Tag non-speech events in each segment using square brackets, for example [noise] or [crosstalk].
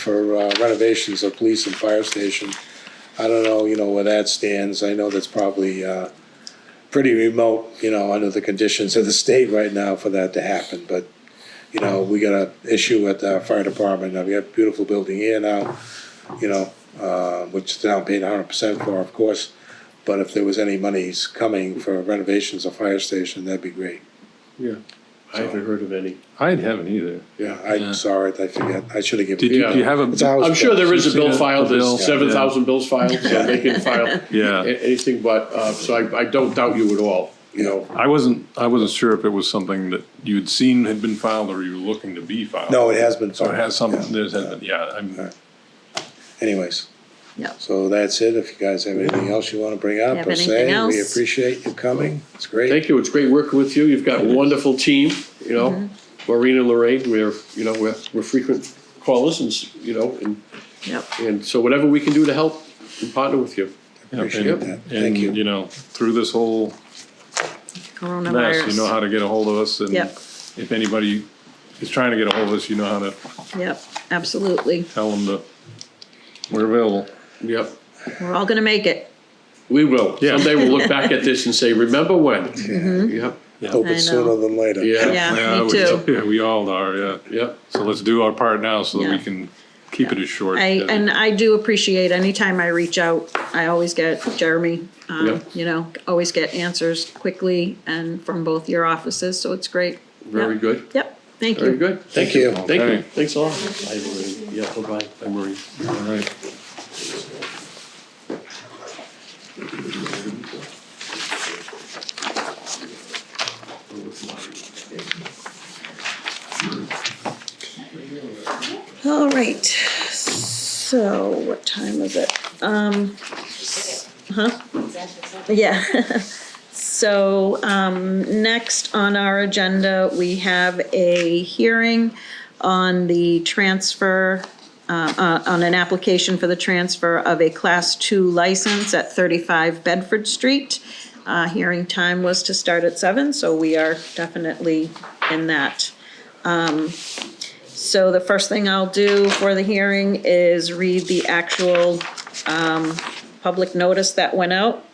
for uh, renovations of police and fire station. I don't know, you know, where that stands. I know that's probably uh, pretty remote, you know, under the conditions of the state right now for that to happen. But, you know, we got an issue at the fire department. Now, We have a beautiful building here now, you know, uh, which the town paid hundred percent for, of course. But if there was any monies coming for renovations of fire station, that'd be great. Yeah, I haven't heard of any. I haven't either. Yeah, Yeah. I saw it. I forget. I should have given. Did you, do you have It's a? ours, I'm sure there is a You've seen bill it, filed, the bill, there's seven thousand bills filed, so they can file a- [laughs] Yeah, anything but, uh, so I, I don't doubt you at all, you know. I wasn't, I wasn't sure if it was something that you'd seen had been filed or you were looking to be filed. No, it has been. So it has some, Yeah. there's, yeah, I'm, Anyways. Yeah. So that's it. If you guys have anything else you want to bring up Have or say, anything we else? appreciate you coming. It's great. Thank you, it's great working with you, you've got a wonderful team, you know. Maureen and Lorraine, we're, you know, we're, we're frequent callers and, s- you know, and, Yep. and so whatever we can do to help and partner with you. Appreciate that. Thank and, you. you know, through this whole mess, Coronavirus. you know how to get a hold of us and Yep. if anybody is trying to get a hold of us, you know how to Yep, absolutely. tell them that we're available. Yep, We're all gonna make it. we will, Yeah. someday we'll look back at this and say, remember when? Yeah. Yep, Hope I it's know. sooner than later. Yeah. Yeah, we- me too. [laughs] Yeah, we all are, yeah. yep, So let's do our part now so that we Yeah. can keep it as short. I, as- and I do appreciate anytime I reach out, I always get Jeremy, um, Yep. you know, always get answers quickly and from both your offices, so it's great. very Yep. good, Yep, thank very you. good. Thank you. Thank you, Okay. thanks a lot. Bye, Maureen. Yeah, bye-bye, bye, Maureen. All right. All right, so what time is it? Um, s- huh? Yeah. [laughs] So, um, next on our agenda, we have a hearing on the transfer, uh, uh, on an application for the transfer of a Class Two license at thirty-five Bedford Street. Uh, hearing time was to start at seven, so we are definitely in that. So the first thing I'll do for the hearing is read the actual um, public notice that went out.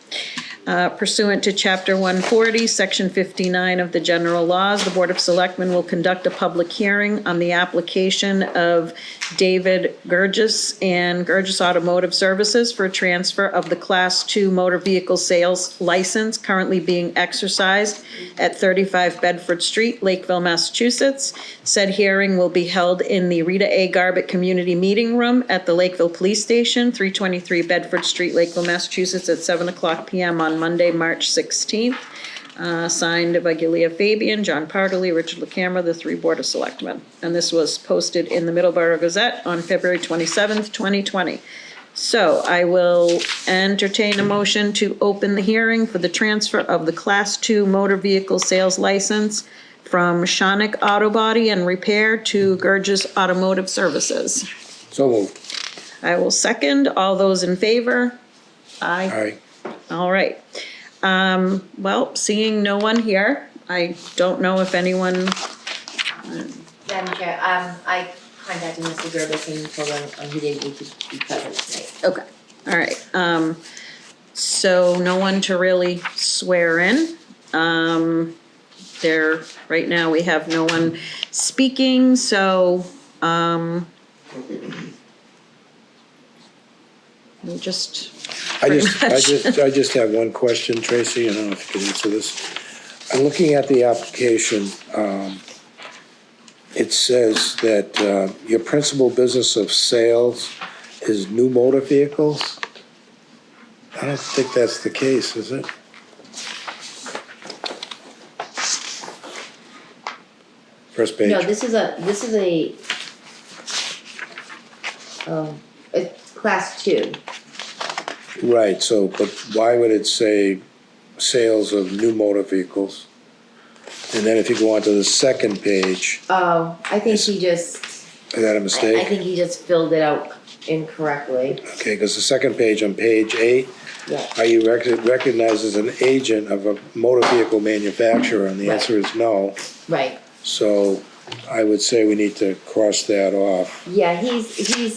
Uh, Pursuant to Chapter 140, Section 59 of the General Laws, the Board of Selectmen will conduct a public hearing on the application of David Gurgis and Gurgis Automotive Services for a transfer of the Class 2 motor vehicle sales license currently being exercised at 35 Bedford Street, Lakeville, Massachusetts. Said hearing will be held in the Rita A. Garbett Community Meeting Room at the Lakeville Police Station, 323 Bedford Street, Lakeville, Massachusetts, at 7 o'clock PM on Monday, March 16th. Uh, Signed by Gilia Fabian, John Partley, Richard LaCamera, the three Board of Selectmen. And this was posted in the Middleborough Gazette on February 27th, 2020. So I will entertain a motion to open the hearing for the transfer of the Class II motor vehicle sales license from Shonick Auto Body and Repair to Gurgis Automotive Services. So moved. I will second. All those in favor? All Aye. right. All right. Um, well, seeing no one here, I don't know if anyone, Madam Chair, um, I contacted Mr. Gerbis and told him um, he didn't need to be present tonight. okay, all right. Um, so no one to really swear in. Um, there, right now, we have no one speaking, so, um, we just, I just, I much. just, I just have one question, Tracy, I don't know if you can answer this. I'm looking at the application, um, it says that, uh, your principal business of sales is new motor vehicles? I don't think that's the case, is it? First page. No, this is a, this is a um, a class two. Right, so, but why would it say sales of new motor vehicles? And then if you go on to the second page, Oh, I think he just, is that a I I mistake? think he just filled it out incorrectly, Okay, because the second page on page eight, yeah. are you rec- recognized as an agent of a motor vehicle manufacturer? And the Right. answer is no. Right, So I would say we need to cross that off. yeah, he's, he's